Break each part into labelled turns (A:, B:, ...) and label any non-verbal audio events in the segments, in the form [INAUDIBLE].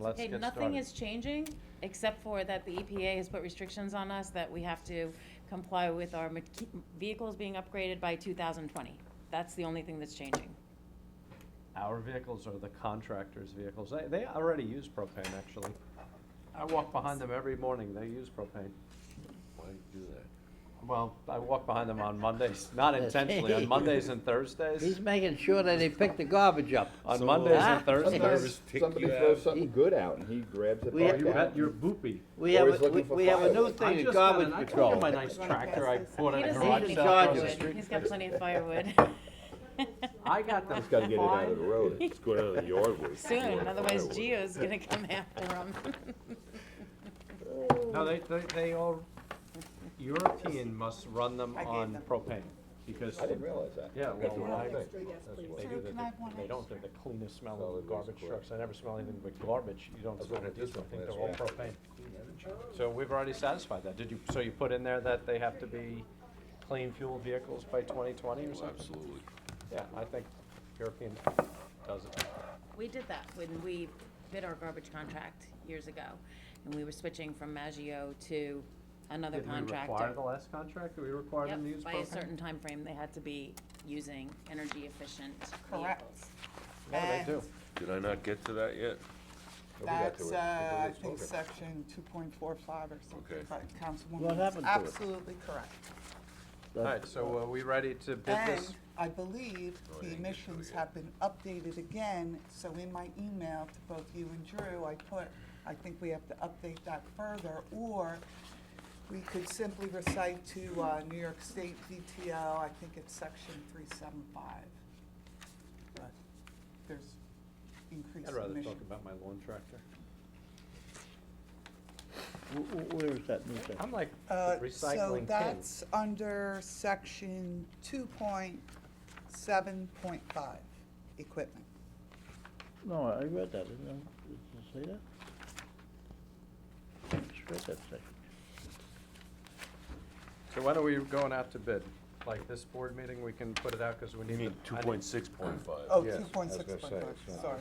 A: Let's
B: Okay,
A: get
B: nothing
A: started.
B: is changing, except for that the EPA has put restrictions on us that we have to comply with our mech- vehicles being upgraded by two thousand twenty. That's the only thing that's changing.
A: Our vehicles are the contractors' vehicles. They, they already use propane, actually. I walk behind them every morning. They use propane.
C: Why do you do that?
A: Well, I walk behind them on Mondays, not intentionally, on Mondays and Thursdays.
D: He's making sure that they pick the garbage up.
A: On
C: So-
A: Mondays
D: Ah.
A: and Thursdays.
C: Nervous tick
E: Somebody
C: you
E: throws
C: out.
E: something good out and he grabs it
D: We
A: Oh,
E: back
D: have-
A: you bet
E: out.
A: your boopy.
D: We have,
E: Always
D: a- we
E: looking for
D: we have a new
E: fireworks.
A: I
D: thing, in
A: just got
D: garbage
A: an- I took
D: control.
A: my nice tractor, I bought
B: He
A: it in a garage
B: doesn't need
D: need
B: any
D: to
A: sale across the
D: charge it.
B: firewood,
A: street.
B: he's got plenty
A: [LAUGHS]
B: of firewood.
A: I got them.
E: Just gotta get it out of the road.
C: Let's go down to the yard with. it.
B: Soon, otherwise Geo's gonna come after
A: [LAUGHS]
B: him.
A: No, they, they, they all, European must run them
F: I gave
A: on
F: them.
A: propane, because,
E: I didn't realize that.
A: yeah,
E: That's the
A: well,
E: wrong
A: I,
E: thing.
A: they do, the-
F: Can I have one
A: they don't, they're the cleanest smelling of garbage trucks, I never smell anything but garbage, you don't
E: was
A: smell
E: looking
A: a
E: at this
A: diesel, I
E: one
A: think they're all
E: last
A: propane. So we've already satisfied that, did you, so you put in there that they have to be clean fuel vehicles by twenty twenty or
C: Well,
A: something?
C: Absolutely.
A: Yeah, I think European does it.
B: We did that when we bid our garbage contract years ago, and we were switching from Maggio to another
A: Did we require
B: contractor.
A: the last contract, did we require
B: Yep,
A: them to use propane?
B: by a certain time frame, they had to be using energy efficient
F: Correct.
B: vehicles.
A: Yeah, they do.
C: Did I not get to that yet?
E: Nobody got to
F: That's,
E: it.
F: uh, I
E: Nobody's
F: think,
E: spoken.
F: section two point four five or something,
C: Okay.
F: but Councilwoman.
D: What
F: is
D: happened to it?
F: Absolutely correct.
A: All right, so are we ready to bid
F: And
A: this?
F: I believe
C: Oh,
F: the
C: I didn't get to it
F: emissions
C: yet.
F: have been updated again, so in my email to both you and Drew, I put, I think we have to update that further, or we could simply recite to, uh, New York State VTO, I think it's section three seven five. But There's increased
A: I'd rather
F: emissions.
A: talk about my lawn tractor.
D: Wh- wh- Where is that new thing?
A: I'm like
F: Uh,
A: the recycling
F: So
A: king.
F: that's under section two point seven point five, equipment.
D: No, I read that, didn't I? Did it say that? I just read that section.
A: So when are we going out to bid? Like this board meeting, we can put it out because we
C: You
A: need.
C: mean
A: the-
C: two
A: I need-
C: point six point
F: Oh,
C: five?
E: Yes, I
F: two
E: was
F: point
E: gonna
F: six point
E: say,
F: five,
E: it's not-
F: sorry.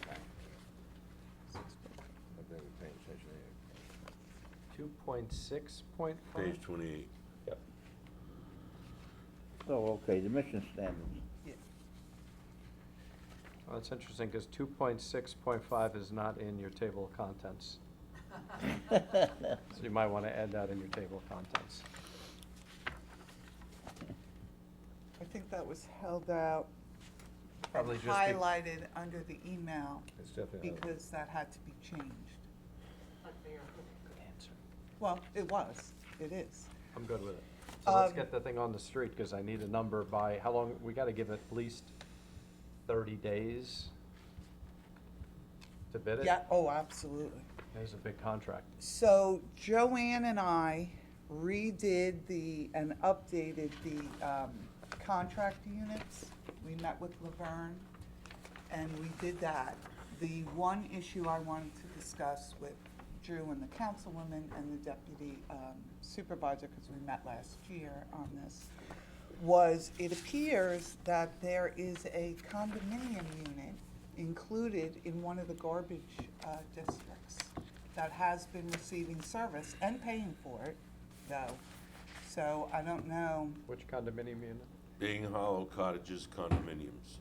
E: I've never paid attention to
A: Two point six point five?
C: Page twenty-eight.
D: Oh, okay, the mission standards.
A: Well, that's interesting because two point six point five is not in your table of contents. So you might want to add that in your table of contents.
F: I think that was held out and
A: Probably just be-
F: highlighted under the email
E: it. It's definitely. not-
F: because that had to be changed. Well, it was, it is.
A: I'm good with it. So let's
F: Um,
A: get the thing on the street because I need a number by, how long, we got to give it at least thirty days to bid it?
F: Yeah, oh, absolutely.
A: There's a big contract.
F: So Joanne and I redid the, and updated the um, contract units. We met with Laverne, and we did that. The one issue I wanted to discuss with Drew and the councilwoman and the deputy um, supervisor, because we met last year on this, was it appears that there is a condominium unit included in one of the garbage uh, districts that has been receiving service and paying for it, though. So I don't know,
A: Which condominium unit?
C: Being Hollow Cottages condominiums.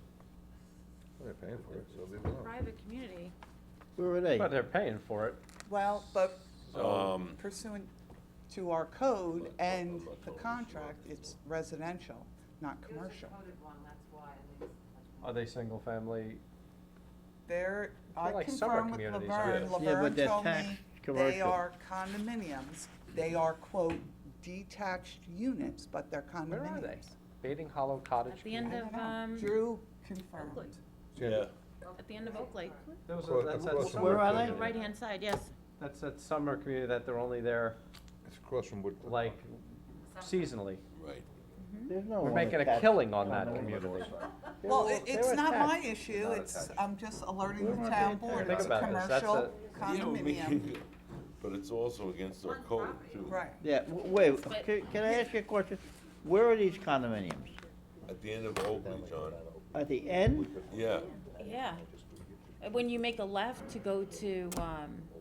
E: They're paying for it, so leave it alone.
B: Private community.
D: [LAUGHS] Where are they?
A: But they're paying for it.
F: well, but
C: Um,
F: pursuant to our code and the contract, it's residential, not commercial.
A: Are they single family?
F: There, I
A: They're like summer
F: confirm with
A: communities,
F: Laverne,
A: aren't
D: they? Yeah, but
F: Laverne
D: they're
F: told
D: taxed
F: me they
D: commercial.
F: are condominiums. They are quote detached units, but they're condominiums.
A: Where are they? Bating Hollow Cottage?
B: At the end
A: Community?
B: of, um,
F: Drew confirmed.
C: Yeah.
B: at the end of Oakley,
A: Those
E: Across-
A: are- that's that
E: across from
A: summer-
D: Where are
E: Woodfield,
D: they?
E: yeah.
B: right-hand side, yes.
A: That's that summer community that they're only there
E: It's across from Woodfield.
A: like seasonally.
C: Right.
D: There's no
A: We're
D: one
A: making a
D: attached.
A: killing on that community.
F: Well,
A: They
F: it-
A: were- they
F: it's
A: were
F: not my
A: attached.
F: issue, it's, I'm just alerting
D: Where
F: the
D: are
F: town
D: they
F: board,
A: attached?
F: it's a
A: Think about this, that's
F: commercial
C: You know, we-
F: condominium,
C: [LAUGHS] But it's also against our code too.
F: right.
D: Yeah, w- wait, can, can I ask you a question? Where are these condominiums?
C: At the end of Oakley, John.
D: At the end?
C: Yeah.
B: Yeah, When you make a left to go to, um,